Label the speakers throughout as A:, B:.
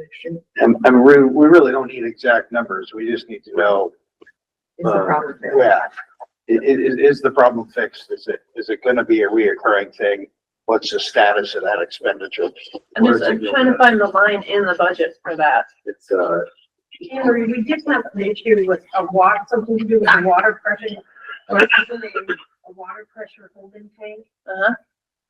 A: restriction
B: And, and we, we really don't need exact numbers. We just need to know,
A: is the
B: Uh,
A: problem there.
B: yeah. I- i- is, is the problem fixed? Is it, is it gonna be a reoccurring thing? What's the status of that expenditure?
C: I'm just, I'm trying to find the line in the budget for that.
B: It's, uh,
C: Henry, we did have an issue with a water, something to do with the water pressure, or something, a water pressure holding tank. Uh-huh.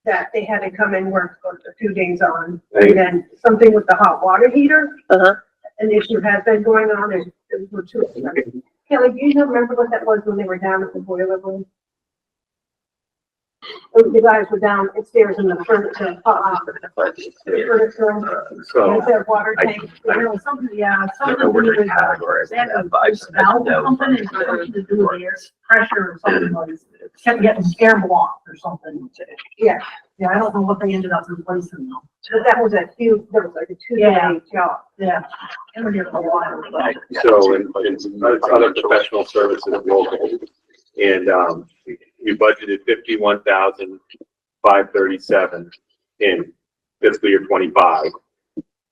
C: That they had to come and work for a few days on,
B: Right.
C: and then something with the hot water heater.
A: Uh-huh.
C: An issue has been going on, and it was too expensive. Kelly, do you remember what that was when they were down at the boiler room? Those guys were down upstairs in the furnace, uh, furnace room.
B: uh,
D: So
C: Is there water
D: I-
C: tank?
D: I-
C: There was something, yeah,
D: I
C: something
D: don't know where
C: to
D: to
C: do with
D: categorize
C: that
D: that, but I just. I
C: valve
D: know
C: or something,
D: from
C: and something to do
D: the-
C: with air pressure or something was, kept getting scare blocked or something. Yeah. Yeah, I don't know what they ended up replacing though. But that was a huge, that was like a two-day job. Yeah. It was a while, but.
E: So, and, and some other professional services global. And, um, we- we budgeted fifty-one thousand five thirty-seven in fiscal year twenty-five.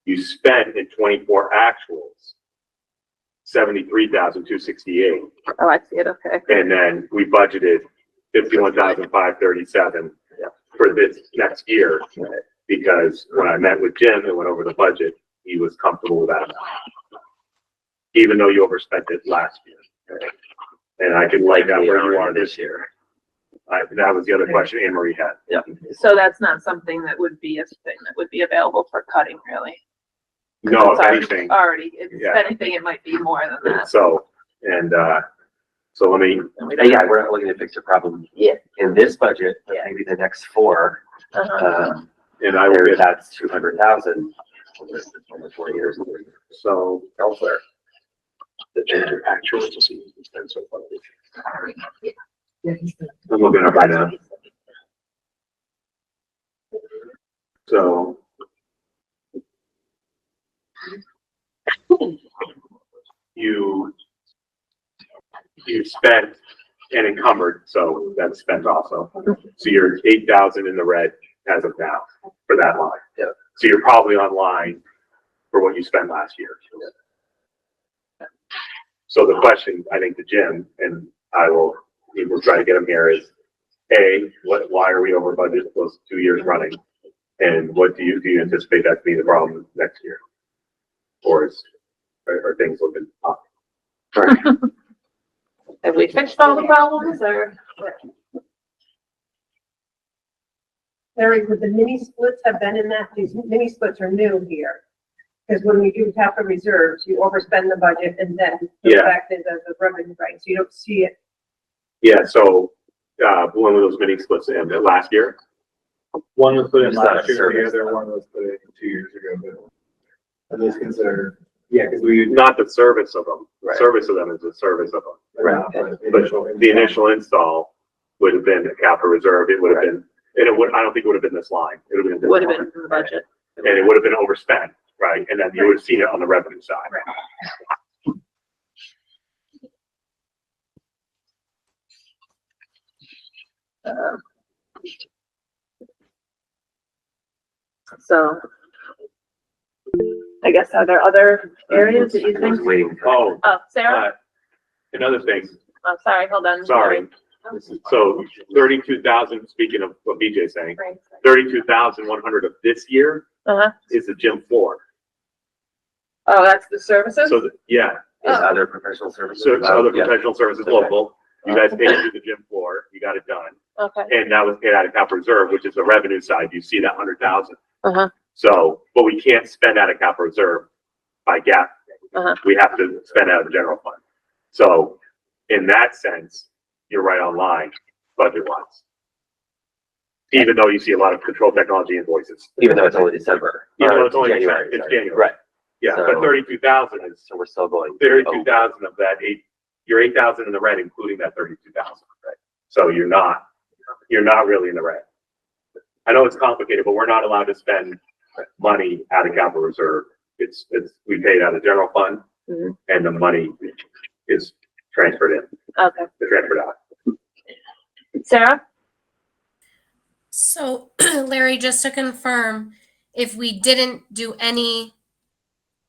E: You spent in twenty-four actuals, seventy-three thousand two sixty-eight.
A: Oh, I see it, okay.
E: And then we budgeted fifty-one thousand five thirty-seven for this next year. Because when I met with Jim and went over the budget, he was comfortable with that. amount. Even though you overspent it last year. And I can like that where you are this year. I, that was the other question Anne Marie had.
A: So that's not something that would be a thing that would be available for cutting really.
E: No,
A: It's
E: Oh, if
A: already-
E: anything,
A: Already, if it's
E: Yeah.
A: anything, it might be more than that.
E: so, and, uh, so let me,
D: Yeah, we're not looking to fix a problem.
A: Yeah.
D: In this budget, but
A: Yeah.
D: maybe the next four,
A: Uh-huh.
D: um,
E: and I will
D: there,
E: get,
D: that's two hundred thousand over over four years
E: so,
D: elsewhere.
E: the actual to see. what's been so far. I'm looking up right now. So. You. You spent and encumbered, so that's spent also. So you're eight thousand in the red as of now for that line.
D: Yeah.
E: So you're probably online for what you spent last year. So the question, I think, to Jim, and I will, we will try to get him here is, A, what, why are we over budget those two years running? And what do you, do you anticipate that to be the problem next year? Or is, are, are things looking up?
A: Have we fixed all the problems or?
C: Larry, would the mini splits have been in that? These mini splits are new here. Because when we do capital reserves, you overspend the budget and then the
E: Yeah.
C: fact is that the revenue, right? So you don't see it.
E: Yeah, so, uh, one of those mini splits in the last year,
F: One was put in
D: It's not
F: last
D: a
F: year, the
D: service,
F: other one was put in two years ago, but are those considered, yeah, because we.
E: not the service of them.
D: Right.
E: Service of them is the service of them.
D: Right.
E: But the initial install would have been a capital reserve, it would have
D: Right.
E: been, and it would, I don't think it would have been this line, it would have been. a
A: Would have
E: different
A: been in the budget.
E: line. And it would have been overspent, right, and then you would have seen it on the revenue side.
A: Um, So. I guess are there other areas that you
D: I was
A: think?
D: waiting for.
E: Oh,
A: Oh, Sarah,
E: uh, another thing,
A: I'm sorry, hold on.
E: sorry, so thirty-two thousand, speaking of what BJ's saying,
A: Sorry.
E: thirty-two thousand one hundred of this year
A: Uh-huh.
E: is the gym floor.
A: Oh, that's the services?
E: So, the- yeah,
A: Oh.
D: Is other professional services.
E: so so
D: allowed?
E: other
D: Yeah.
E: professional services
D: Okay.
E: local, you guys paid through the gym floor, you got it done.
A: Okay.
E: And that was paid out of capital reserve, which is the revenue side. You see that hundred thousand.
A: Uh-huh.
E: So, but we can't spend out of capital reserve by gap.
A: Uh-huh.
E: We have to spend out of the general fund. So in that sense, you're right on line budget wise. Even though you see a lot of control technology invoices,
D: Even though it's only December.
E: even though
D: or
E: it's only,
D: January,
E: it's
D: sorry.
E: January.
D: Right,
E: Yeah, but
D: So-
E: thirty-two thousand is,
D: so we're still going.
E: thirty-two thousand of that eight, you're eight thousand in the red, including that thirty-two thousand, right? So you're not, you're not really in the red. I know it's complicated, but we're not allowed to spend money out of capital reserve. It's, it's, we pay it out of general fund
A: Mhm.
E: and the money is transferred in,
A: Okay.
E: transferred out.
A: Sarah?
G: So Larry, just to confirm, if we didn't do any